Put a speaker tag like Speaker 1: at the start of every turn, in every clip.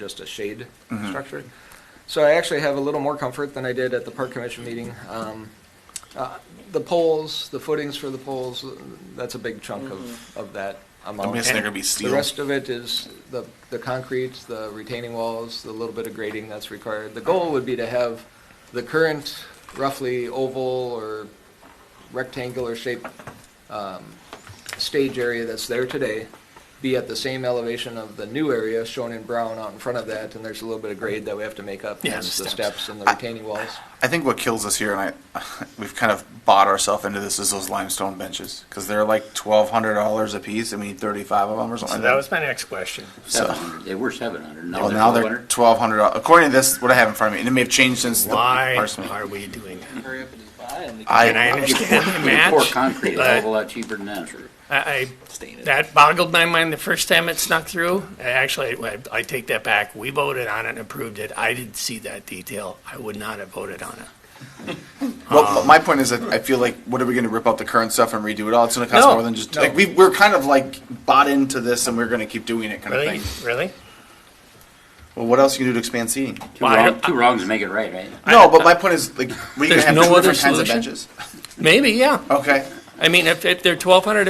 Speaker 1: just a shade
Speaker 2: Mm-hmm.
Speaker 1: structure. So I actually have a little more comfort than I did at the park commission meeting. Um, uh, The poles, the footings for the poles, that's a big chunk of, of that amount.
Speaker 2: I'm guessing they're
Speaker 1: And
Speaker 2: gonna be steel.
Speaker 1: The rest of it is the, the concrete, the retaining walls, the little bit of grading that's required. The goal would be to have the current roughly oval or rectangular shaped um, stage area that's there today be at the same elevation of the new area shown in brown out in front of that, and there's a little bit of grade that we have to make up.
Speaker 2: Yeah,
Speaker 1: hence
Speaker 2: the
Speaker 1: The
Speaker 2: steps.
Speaker 1: steps and the retaining walls.
Speaker 2: I think what kills us here, and I, we've kind of bought ourselves into this, is those limestone benches because they're like twelve hundred dollars a piece, and we need thirty-five of them or something.
Speaker 3: So
Speaker 2: like
Speaker 3: that was my next question.
Speaker 2: so.
Speaker 4: 700. They were seven hundred,
Speaker 2: Well,
Speaker 4: now they're
Speaker 2: now
Speaker 4: twelve
Speaker 2: they're
Speaker 4: hundred.
Speaker 2: twelve hundred. According to this, what I have in front of me, and it may have changed since the
Speaker 3: Why
Speaker 2: first meeting.
Speaker 3: are we doing that?
Speaker 5: Hurry up and just buy and
Speaker 3: And I
Speaker 2: I,
Speaker 3: understand the match,
Speaker 4: Pour concrete, it's a
Speaker 3: but
Speaker 4: whole lot cheaper than that, sure.
Speaker 3: I,
Speaker 5: stain
Speaker 3: I-
Speaker 5: it.
Speaker 3: that boggled my mind the first time it snuck through. I Actually, I, I take that back. We voted on it and approved it. I didn't see that detail. I would not have voted on it.
Speaker 2: well, my point is that I feel like, what are we going to rip up the current stuff and redo it all? It's going to cost
Speaker 3: No,
Speaker 2: more than just
Speaker 3: no.
Speaker 2: like we we're kind of like bought into this, and we're going to keep doing it kind
Speaker 3: Really?
Speaker 2: of thing.
Speaker 3: Really?
Speaker 2: Well, what else you can do to expand seating?
Speaker 4: Two
Speaker 3: Well, I
Speaker 4: wrongs,
Speaker 3: don't-
Speaker 4: two wrongs make it right, right?
Speaker 2: No, but my point is like we can
Speaker 3: There's
Speaker 2: have
Speaker 3: no
Speaker 2: two
Speaker 3: other
Speaker 2: different kinds of
Speaker 3: solution?
Speaker 2: benches.
Speaker 3: Maybe, yeah.
Speaker 2: Okay,
Speaker 3: I mean, if, if they're twelve hundred,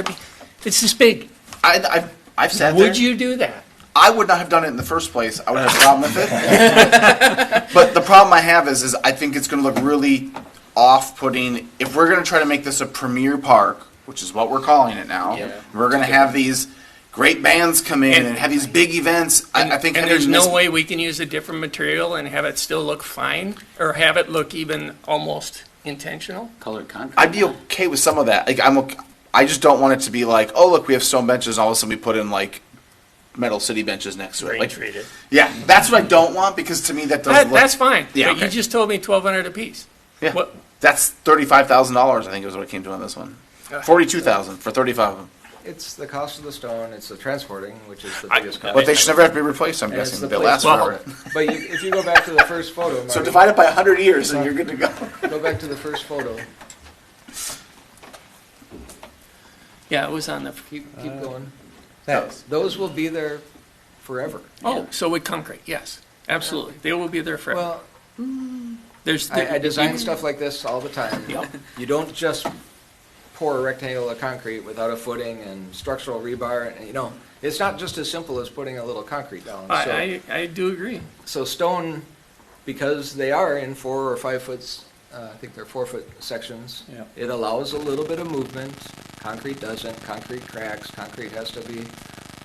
Speaker 3: it's this big.
Speaker 2: I I've, I've sat there.
Speaker 3: Would you do that?
Speaker 2: I would not have done it in the first place. I would have a problem with it. but the problem I have is, is I think it's going to look really off-putting if we're going to try to make this a premier park, which is what we're calling it now.
Speaker 5: Yeah.
Speaker 2: We're going to have these great bands come in and, have these big events. I, I think
Speaker 3: And
Speaker 2: having
Speaker 3: there's no
Speaker 2: this-
Speaker 3: way we can use a different material and have it still look fine or have it look even almost intentional?
Speaker 4: Colored concrete.
Speaker 2: I'd be okay with some of that. Like I'm, okay, I just don't want it to be like, oh look, we have stone benches. All of a sudden, we put in like metal city benches next to it.
Speaker 3: Brain
Speaker 2: Like,
Speaker 3: treated.
Speaker 2: yeah, that's what I don't want because to me that doesn't.
Speaker 3: That,
Speaker 2: look,
Speaker 3: that's fine.
Speaker 2: Yeah,
Speaker 3: But you
Speaker 2: okay.
Speaker 3: just told me twelve hundred apiece.
Speaker 2: Yeah.
Speaker 3: What-
Speaker 2: That's thirty-five thousand dollars. I think is what it came to on this one. Forty-two thousand for thirty-five of them.
Speaker 1: It's the cost of the stone, it's the transporting, which is the
Speaker 3: I-
Speaker 1: biggest
Speaker 2: But
Speaker 1: cost.
Speaker 2: they should never have to be replaced. I'm
Speaker 1: And it's
Speaker 2: guessing
Speaker 1: the
Speaker 2: they
Speaker 1: place
Speaker 2: last
Speaker 1: for
Speaker 2: forever.
Speaker 1: it. But you- if you go back to the first photo,
Speaker 2: So
Speaker 1: Marty,
Speaker 2: divide it by hundred years, and you're good to go.
Speaker 1: go back to the first photo,
Speaker 3: Yeah, it was on the,
Speaker 1: keep, keep going.
Speaker 2: Uh, Thanks.
Speaker 1: Those will be there forever.
Speaker 3: oh, so with concrete, yes, absolutely. They will be there forever.
Speaker 1: Well,
Speaker 3: There's,
Speaker 1: I, I design stuff like this all the time.
Speaker 3: Yep.
Speaker 1: You don't just pour a rectangle of concrete without a footing and structural rebar, and, you know, it's not just as simple as putting a little concrete down. So-
Speaker 3: I, I, I do agree.
Speaker 1: So stone, because they are in four or five foots, uh, I think they're four foot sections.
Speaker 4: Yeah.
Speaker 1: It allows a little bit of movement. Concrete doesn't. Concrete cracks. Concrete has to be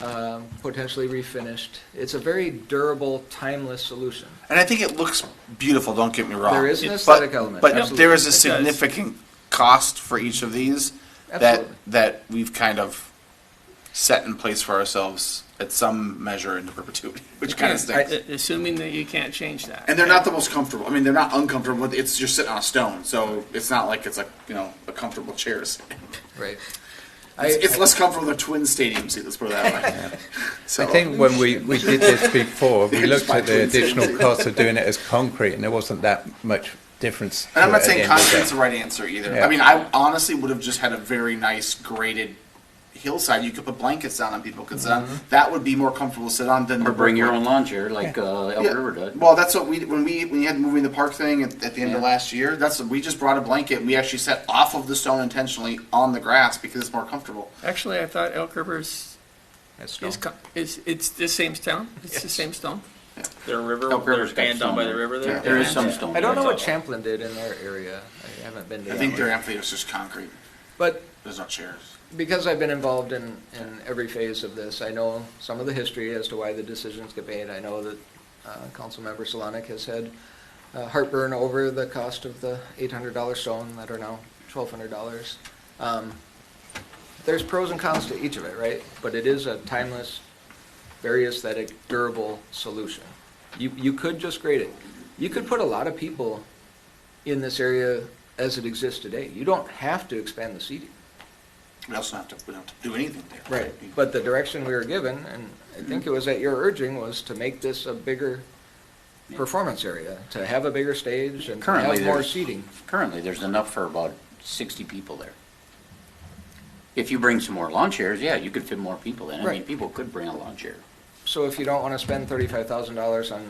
Speaker 1: um, potentially refinished. It's a very durable, timeless solution.
Speaker 2: And I think it looks beautiful. Don't get me wrong.
Speaker 1: There is an
Speaker 2: But-
Speaker 1: aesthetic element,
Speaker 2: but
Speaker 1: absolutely.
Speaker 2: there is
Speaker 3: It
Speaker 2: a
Speaker 3: does.
Speaker 2: significant cost for each of these
Speaker 1: Absolutely.
Speaker 2: that that we've kind of set in place for ourselves at some measure into perpetuity, which kind of stinks.
Speaker 3: A- Assuming that you can't change that.
Speaker 2: And they're not the most comfortable. I mean, they're not uncomfortable. but It's just sitting on a stone, so it's not like it's a you know a comfortable chair. It's,
Speaker 1: Right.
Speaker 2: it's less comfortable than twin stadium seat. Let's put it that way. So
Speaker 6: I think when we, we did this before, we
Speaker 2: It's
Speaker 6: looked
Speaker 2: my
Speaker 6: at the
Speaker 2: twin sister.
Speaker 6: additional cost of doing it as concrete, and there wasn't that much difference.
Speaker 2: And I'm
Speaker 6: to
Speaker 2: not
Speaker 6: it at
Speaker 2: saying
Speaker 6: the end of the
Speaker 2: concrete's
Speaker 6: day.
Speaker 2: the right answer either.
Speaker 6: Yeah.
Speaker 2: I mean, I honestly would have just had a very nice graded hillside. You could put blankets down and people could sit on. That would be more comfortable to sit on than
Speaker 4: Or
Speaker 2: the
Speaker 4: bring your
Speaker 2: brick
Speaker 4: own lawn chair like, uh,
Speaker 2: Yeah.
Speaker 4: Elk River does.
Speaker 2: Well, that's what we when we when you had moving the park thing at, at the end of
Speaker 4: Yeah.
Speaker 2: last year. That's we just brought a blanket. and We actually sat off of the stone intentionally on the grass because it's more comfortable.
Speaker 3: Actually, I thought Elk River's,
Speaker 1: That's stone.
Speaker 3: is, co- is, it's the same stone? It's the same stone?
Speaker 7: Their river,
Speaker 4: Elk
Speaker 7: their
Speaker 4: River's got
Speaker 7: band down by the
Speaker 4: stone.
Speaker 7: river
Speaker 2: Yeah.
Speaker 7: there?
Speaker 4: There is some stone.
Speaker 1: I don't know
Speaker 4: there.
Speaker 1: what Champlin did in their area. I haven't been to
Speaker 2: I
Speaker 1: that
Speaker 2: think
Speaker 1: one.
Speaker 2: their amphitheater is just concrete.
Speaker 1: But
Speaker 2: There's no chairs.
Speaker 1: because I've been involved in, in every phase of this, I know some of the history as to why the decisions get made. I know that uh, Councilmember Solonic has had uh, heartburn over the cost of the $800 stone that are now $1,200. Um, There's pros and cons to each of it, right? But it is a timeless, very aesthetic, durable solution. You, you could just grade it. You could put a lot of people in this area as it exists today. You don't have to expand the seating.
Speaker 2: We also don't have to we don't have to do anything there.
Speaker 1: Right, but the direction we were given, and I think it was at your urging, was to make this a bigger performance area, to have a bigger stage and to
Speaker 4: Currently,
Speaker 1: have more
Speaker 4: there's-
Speaker 1: seating.
Speaker 4: Currently, there's enough for about sixty people there. If you bring some more lawn chairs, yeah, you could fit more people in. I mean,
Speaker 1: Right.
Speaker 4: people could bring a lawn chair.
Speaker 1: so if you don't want to spend thirty-five thousand dollars on